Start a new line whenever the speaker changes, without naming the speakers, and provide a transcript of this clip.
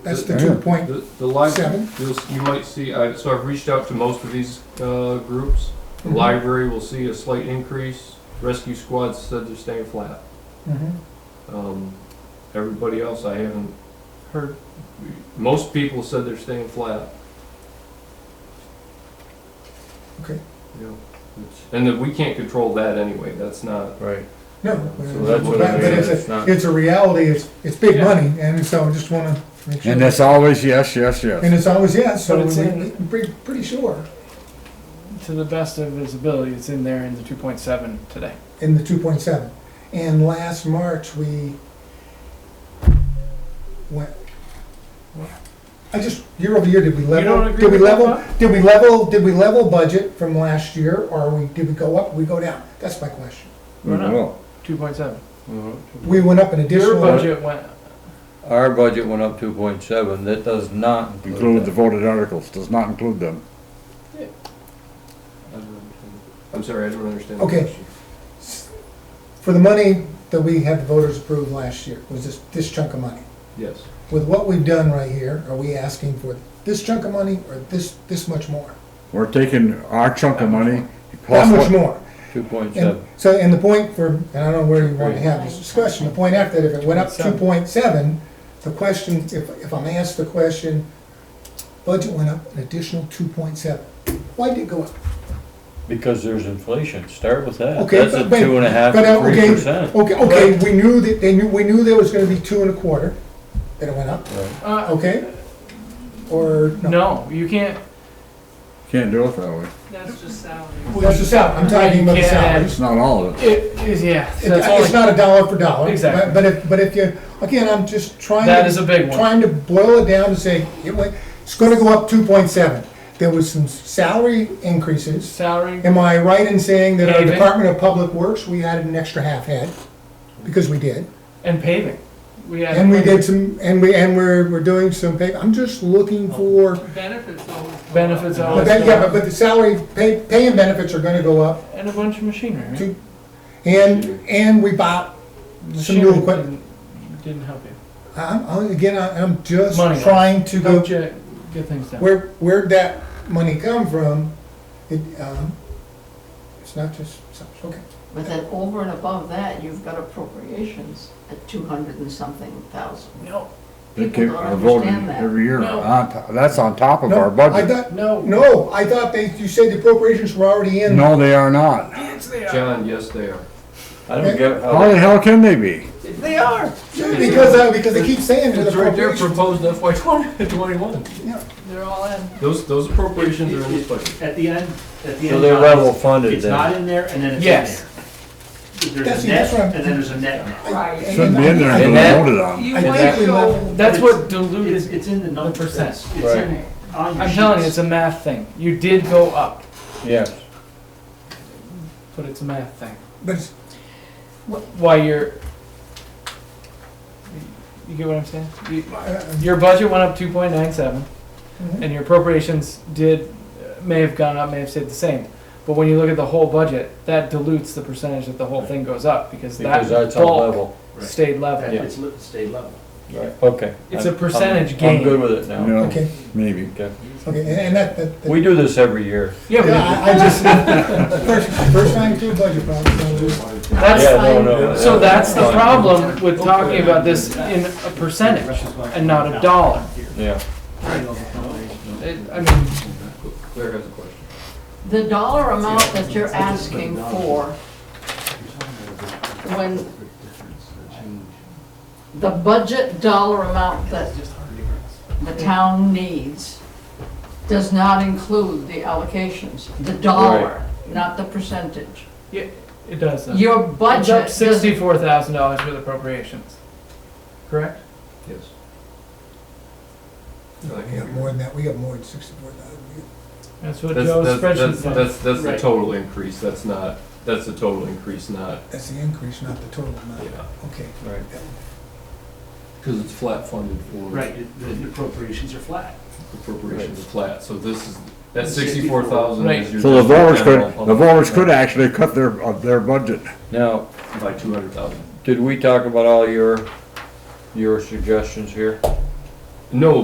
That's the
Yeah.
two point,
The, the library,
Seven.
you'll, s- you might see, I, so I've reached out to most of these, uh, groups. The
Mhm.
library will see a slight increase, rescue squad said they're staying flat.
Mhm.
Um, everybody else I haven't heard, most people said they're staying flat.
Okay.
You know, it's- and that we can't control that anyway, that's not,
Right,
no.
so that's what
But
I mean,
it's a-
it's not,
It's a reality, it's, it's big
Yeah.
money, and so I just wanna make sure.
And it's always yes, yes, yes.
And it's always yes, so
But it's
we're
in-
pretty, pretty sure
To the best of his ability, it's in there in the two point seven today.
in the two point seven. And last March, we went, I just, year over year, did we
You don't
level,
agree
did we
with that,
level, did we level, did we level budget from last year, or we, did we go up, we go down? That's my question.
We're not.
Well,
Two point seven.
Mhm.
We went up an
Your
additional,
budget went,
our budget went up two point seven, that does not
Include
include
the
that.
voted articles, does not include them.
I don't understand. I'm sorry, I don't understand the
Okay.
question.
for the money that we had the voters approve last year, was this, this chunk of money.
Yes,
With what we've done right here, are we asking for this chunk of money, or this, this much more?
We're taking our chunk of money. plus
That much
what-
more?
Two point
And
seven,
so, and the point for, and I don't know where you want to have this discussion, the point after that, if it went up two point seven, the question, if, if I'm asked the question, budget went up an additional two point seven. Why did it go up?
because there's inflation, start with that,
Okay,
that's a
but wait,
two and a half,
but, uh,
three
okay,
percent.
Okay, okay, we knew that, they knew, we knew there was gonna be two and a quarter, that it went up,
uh,
okay? Or, no,
no, you can't,
Can't do it that way.
That's just salary.
that's the salary, I'm talking about the
Yeah.
salaries.
It's not all of it.
it is, yeah.
It-
so
It's
it's only-
not a dollar for dollar. but-
Exactly.
But if, but if you, again, I'm just trying to.
That is a big one.
Trying to boil it down to say, it went, it's gonna go up two point seven. There was some salary increases.
Salary,
Am I right in saying that our
Paving.
Department of Public Works, we added an extra half head? Because we did.
and paving. We had.
And we did some, and we, and we're, we're doing some pay, I'm just looking for,
Benefits always. go up.
Benefits
but
always
that,
go
yeah, but-
up,
but the salary, pay, pay and benefits are gonna go up.
and a bunch of machinery, right?
Two- And, and we bought some
Machinery
new equipment.
didn't- Didn't help you.
I'm, I'm, again, I- I'm just
Money.
trying to go,
Helped you get things done.
where, where'd that money come from? It, um, it's not just, so- okay.
But then over and above that, you've got appropriations at two hundred and something thousand.
No,
They
People
keep
don't
our voting
understand that.
every year.
No.
On to- That's on top of
No,
our
I
budget.
thought,
no.
no, I thought they, you said the appropriations were already in.
No, they are not.
Yes, they
John, yes, they are.
I don't get
How
how,
the hell can they be?
They are.
Because, uh, because they keep saying to the
It's right there
appropriations.
proposed FY twenty, twenty-one.
Yeah.
They're all in.
Those, those appropriations are in this budget.
At the end, at the end.
so they're
John,
level funded
It's not
then.
in there, and then it's
Yes.
in there.
That's-
There's a
that's what I'm-
net, and then there's a net.
Right.
Shouldn't be in there
And
until
that-
voted on.
You
I
might
think we
go-
leveled-
That's
It's-
what
It's,
diluted.
it's in the numbers.
percent.
It's it's in, on your
I'm telling you, it's
sheets.
a math thing. You did go up,
Yes,
but it's a math thing.
But it's-
Why you're, you get what I'm saying? You-
uh,
Your budget went up two point nine seven, and your appropriations did, uh, may have gone up, may have stayed the same. But when you look at the whole budget, that dilutes the percentage that the whole thing goes up, because
because
that
that's on
bulk
level,
stayed
That-
level.
Yeah.
It's li- stayed level.
right, okay.
It's a
I'm- I'm-
percentage gain.
I'm good with it now,
No,
Okay,
maybe.
okay.
okay, and- and that, that. that-
We do this every year.
Yeah,
Yeah,
but
I, I just, first, first time through budget problems.
that's,
Yeah, no, no.
So that's the
Fine.
problem with talking about this in a percentage and not a dollar.
Yeah.
It, I mean,
Claire has a question.
The dollar amount that you're asking for, when the budget dollar amount that the town needs does not include the allocations, the dollar, not the percentage.
yeah, it does though.
Your
It's up
budget does
sixty-four thousand dollars with appropriations, correct?
Yes.
We got more than that, we got more than sixty-four thousand.
That's what
That's,
Joe's
that's,
spreadsheet
that's,
said.
that's, that's the
Right.
total increase, that's not, that's the total increase, not,
That's the increase, not the total amount.
yeah,
Okay.
Right.
because it's flat funded for
Right, it- the appropriations are flat.
appropriations is flat, so this is, that sixty-four thousand is your.
So the voters
general
could, the
public
voters could actually cut their, uh, their budget.
Now,
By two hundred thousand.
did we talk about all your, your suggestions here?
No,